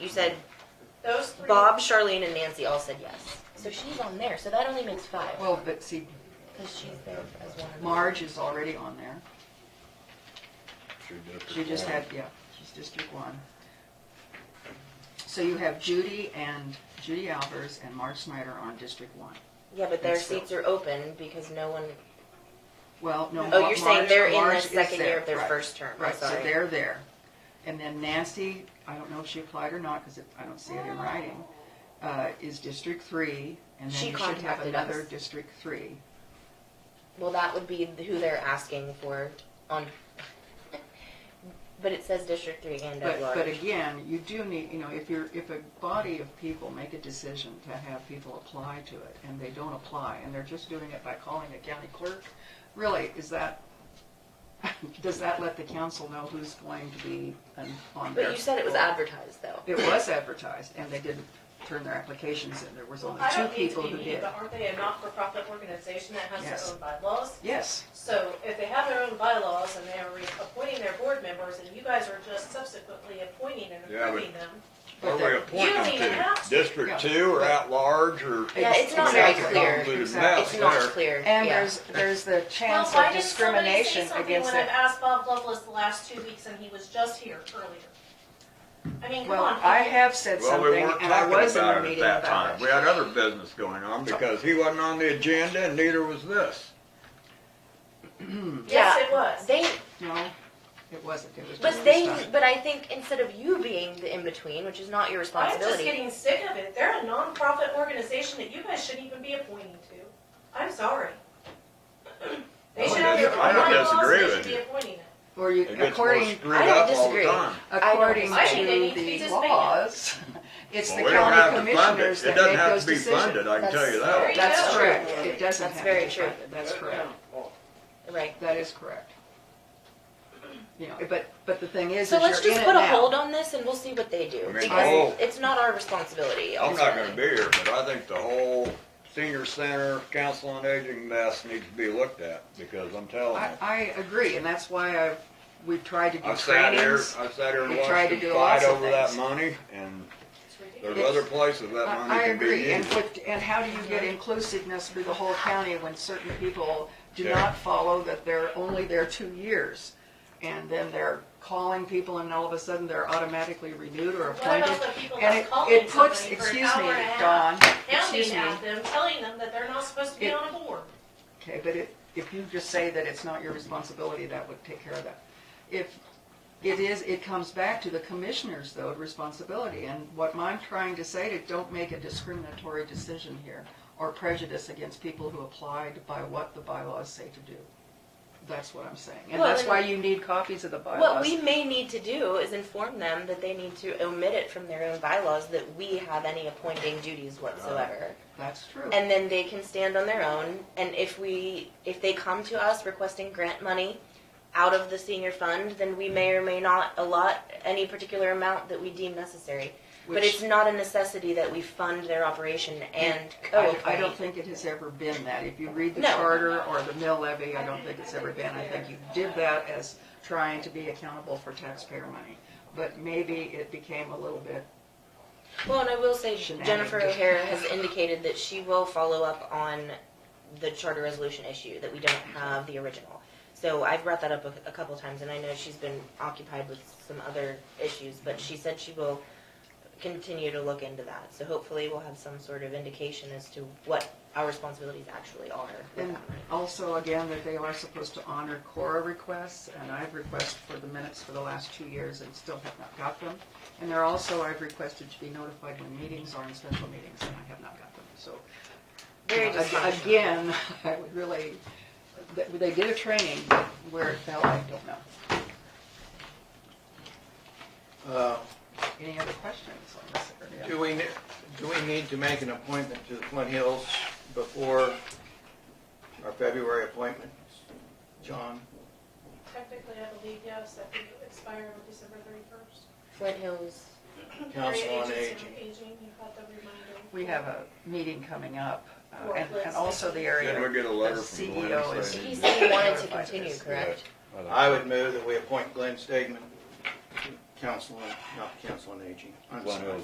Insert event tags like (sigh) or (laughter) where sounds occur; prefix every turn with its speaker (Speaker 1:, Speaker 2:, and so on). Speaker 1: You said
Speaker 2: Those three.
Speaker 1: Bob, Charlene, and Nancy all said yes.
Speaker 3: So she's on there, so that only makes five,
Speaker 4: Well, but see,
Speaker 3: because she's there as one. of them.
Speaker 4: Marge is already on there. She just had, yeah, she's District One. So you have Judy and Judy Alvers and Marge Snyder on District One.
Speaker 1: Yeah, but their
Speaker 4: That's true.
Speaker 1: seats are open because no one.
Speaker 4: Well, no.
Speaker 1: Oh,
Speaker 4: Mar-
Speaker 1: you're saying
Speaker 4: Marge-
Speaker 1: they're in the
Speaker 4: Marge is
Speaker 1: second year
Speaker 4: there,
Speaker 1: of their
Speaker 4: right.
Speaker 1: first term. I'm
Speaker 4: Right, so
Speaker 1: sorry.
Speaker 4: they're there. And then Nancy, I don't know if she applied or not, because I don't see it in writing, uh, is District Three, and
Speaker 1: She
Speaker 4: then you should have
Speaker 1: contacted
Speaker 4: another
Speaker 1: us.
Speaker 4: District Three.
Speaker 1: Well, that would be who they're asking for on. (laughs) but it says District Three and at
Speaker 4: But, but
Speaker 1: large.
Speaker 4: again, you do need, you know, if you're, if a body of people make a decision to have people apply to it, and they don't apply, and they're just doing it by calling the county clerk, really, is that, (laughs) does that let the council know who's going to be on- on
Speaker 1: But
Speaker 4: there?
Speaker 1: you said it was advertised though.
Speaker 4: It was advertised, and they didn't turn their applications in, there was
Speaker 2: Well,
Speaker 4: only
Speaker 2: I
Speaker 4: two
Speaker 2: don't mean to
Speaker 4: people
Speaker 2: be
Speaker 4: who
Speaker 2: mean,
Speaker 4: did.
Speaker 2: but aren't they a not-for-profit organization that has
Speaker 4: Yes.
Speaker 2: their own bylaws?
Speaker 4: Yes,
Speaker 2: So if they have their own bylaws and they're appointing their board members and you guys are just subsequently appointing and
Speaker 5: Yeah, but-
Speaker 2: approving them,
Speaker 5: Are we appointing to
Speaker 2: Yeah.
Speaker 5: District two or at large or?
Speaker 1: Yeah, it's not very
Speaker 4: Exactly.
Speaker 1: clear.
Speaker 5: Convoluted
Speaker 4: Exactly.
Speaker 5: mess
Speaker 1: It's not
Speaker 5: there.
Speaker 1: clear.
Speaker 4: and
Speaker 1: yeah.
Speaker 4: there's, there's the
Speaker 2: Well,
Speaker 4: chance
Speaker 2: why
Speaker 4: of
Speaker 2: didn't somebody say
Speaker 4: discrimination
Speaker 2: something
Speaker 4: against
Speaker 2: when I've
Speaker 4: it.
Speaker 2: asked Bob Lovelace the last two weeks and he was just here earlier? I mean, come
Speaker 4: Well,
Speaker 2: on.
Speaker 4: I have said
Speaker 5: Well, we
Speaker 4: something,
Speaker 5: weren't
Speaker 4: and I
Speaker 5: talking
Speaker 4: was in the
Speaker 5: about it at
Speaker 4: meeting
Speaker 5: that
Speaker 4: about
Speaker 5: time. We
Speaker 4: it.
Speaker 5: had other business going on because he wasn't on the agenda and neither was this.
Speaker 2: Yes, it was.
Speaker 1: They,
Speaker 4: (clears throat) No, it wasn't, it was
Speaker 1: but
Speaker 4: just
Speaker 1: they,
Speaker 4: this time.
Speaker 1: but I think instead of you being the in between, which is not your
Speaker 2: I'm just
Speaker 1: responsibility.
Speaker 2: getting sick of it. They're a nonprofit organization that you guys shouldn't even be appointing to. I'm sorry. (clears throat) They
Speaker 5: I
Speaker 2: should have
Speaker 5: don't
Speaker 2: their
Speaker 5: dis-
Speaker 2: own
Speaker 5: I don't disagree
Speaker 2: bylaws, they
Speaker 5: with
Speaker 2: should be
Speaker 5: you.
Speaker 2: appointing it.
Speaker 4: Or you,
Speaker 5: It gets more
Speaker 4: according,
Speaker 5: screwed
Speaker 1: I don't
Speaker 5: up all the
Speaker 1: disagree.
Speaker 5: time.
Speaker 4: according
Speaker 1: I think
Speaker 2: they
Speaker 4: to
Speaker 2: need to be
Speaker 4: the
Speaker 2: disbanded.
Speaker 5: (laughs)
Speaker 4: laws, it's
Speaker 5: Well,
Speaker 4: the
Speaker 5: we don't have
Speaker 4: county
Speaker 5: to fund it.
Speaker 4: commissioners
Speaker 5: It
Speaker 4: that
Speaker 5: doesn't
Speaker 4: make
Speaker 5: have
Speaker 4: those
Speaker 5: to be funded,
Speaker 4: decisions.
Speaker 5: I can tell you
Speaker 1: That's-
Speaker 5: that.
Speaker 1: There you
Speaker 4: That's
Speaker 1: go.
Speaker 4: correct, it doesn't
Speaker 1: That's
Speaker 4: have
Speaker 1: very
Speaker 4: to be
Speaker 1: true.
Speaker 4: funded, that's correct.
Speaker 1: Right.
Speaker 4: That is correct. You know, but, but the thing is,
Speaker 1: So let's
Speaker 4: is you're
Speaker 1: just
Speaker 4: in it
Speaker 1: put a
Speaker 4: now.
Speaker 1: hold on this and we'll see what they do.
Speaker 5: I mean,
Speaker 1: Because
Speaker 5: I'll-
Speaker 1: it's not our responsibility.
Speaker 5: I'm not gonna
Speaker 1: ultimately.
Speaker 5: be here, but I think the whole senior center, council on aging mess needs to be looked at because I'm telling
Speaker 4: I,
Speaker 5: you.
Speaker 4: I agree, and that's why I've, we've tried to do
Speaker 5: I've sat here,
Speaker 4: trainings.
Speaker 5: I've sat here and
Speaker 4: We tried
Speaker 5: watched
Speaker 4: to
Speaker 5: them
Speaker 4: do
Speaker 5: fight
Speaker 4: lots of
Speaker 5: over that
Speaker 4: things.
Speaker 5: money and
Speaker 2: It's ridiculous.
Speaker 5: there's other places that
Speaker 4: I
Speaker 5: money
Speaker 4: I
Speaker 5: can be used.
Speaker 4: agree, and what, and how do you get inclusiveness through the whole county when certain people do
Speaker 5: Yeah.
Speaker 4: not follow that they're only there two years? And then they're calling people and all of a sudden they're automatically renewed or
Speaker 2: What
Speaker 4: appointed?
Speaker 2: about the people
Speaker 4: And
Speaker 2: that's
Speaker 4: it,
Speaker 2: calling
Speaker 4: it
Speaker 2: somebody
Speaker 4: puts,
Speaker 2: for an
Speaker 4: excuse
Speaker 2: hour
Speaker 4: me,
Speaker 2: and a half,
Speaker 4: Dawn, excuse
Speaker 2: Hounding
Speaker 4: me,
Speaker 2: at them, telling them that they're not supposed to be
Speaker 4: It-
Speaker 2: on a board.
Speaker 4: okay, but it, if you just say that it's not your responsibility, that would take care of that. If it is, it comes back to the commissioners though, responsibility, and what I'm trying to say is don't make a discriminatory decision here or prejudice against people who applied by what the bylaws say to do. That's what I'm saying, and
Speaker 1: Well,
Speaker 4: that's
Speaker 1: and-
Speaker 4: why you need copies of the bylaws.
Speaker 1: What we may need to do is inform them that they need to omit it from their own bylaws that we have any appointing duties whatsoever.
Speaker 4: That's true.
Speaker 1: And then they can stand on their own, and if we, if they come to us requesting grant money out of the senior fund, then we may or may not allot any particular amount that we deem necessary. But
Speaker 4: Which-
Speaker 1: it's not a necessity that we fund their operation and
Speaker 4: I, I
Speaker 1: co-appoint.
Speaker 4: don't think it has ever been that. If you read the
Speaker 1: Oh, No.
Speaker 4: charter or the mill levy, I don't think it's ever been. I think you did that as trying to be accountable for taxpayer money. But maybe it became a little bit,
Speaker 1: Well, and I will say
Speaker 4: Shenanigans.
Speaker 1: Jennifer O'Hara has indicated that she will follow up on the charter resolution issue, that we don't have the original. So I've brought that up a, a couple times, and I know she's been occupied with some other issues, but she said she will continue to look into that. So hopefully we'll have some sort of indication as to what our responsibilities actually are with
Speaker 4: and
Speaker 1: that money.
Speaker 4: also again, that they are supposed to honor Cora requests, and I've requested for the minutes for the last two years and still have not got them. And they're also, I've requested to be notified when meetings are in special meetings, and I have not got them, so.
Speaker 1: Very
Speaker 4: you know, ag-
Speaker 1: dysfunctional.
Speaker 4: Again, (laughs) I would really, th- they did a training, but where it fell, I don't know.
Speaker 6: Uh,
Speaker 4: Any other questions on this area?
Speaker 6: Do we, ne- do we need to make an appointment to the Flint Hills before our February appointment, John?
Speaker 2: Technically, I believe, yes, that could expire on December thirty-first.
Speaker 1: Flint Hills.
Speaker 6: Council on Aging.
Speaker 2: Aging, you had the reminder.
Speaker 4: We have a meeting coming up, uh,
Speaker 2: Or
Speaker 4: and, and
Speaker 2: let's-
Speaker 4: also the area.
Speaker 5: Did we get a letter
Speaker 4: the
Speaker 5: from Glenn
Speaker 4: CEO is-
Speaker 5: saying-
Speaker 1: He said he wanted to continue, correct?
Speaker 6: I would move that we appoint Glenn Stegman council, on- not the council on aging. I'm
Speaker 5: Glen
Speaker 6: sorry.
Speaker 5: Hills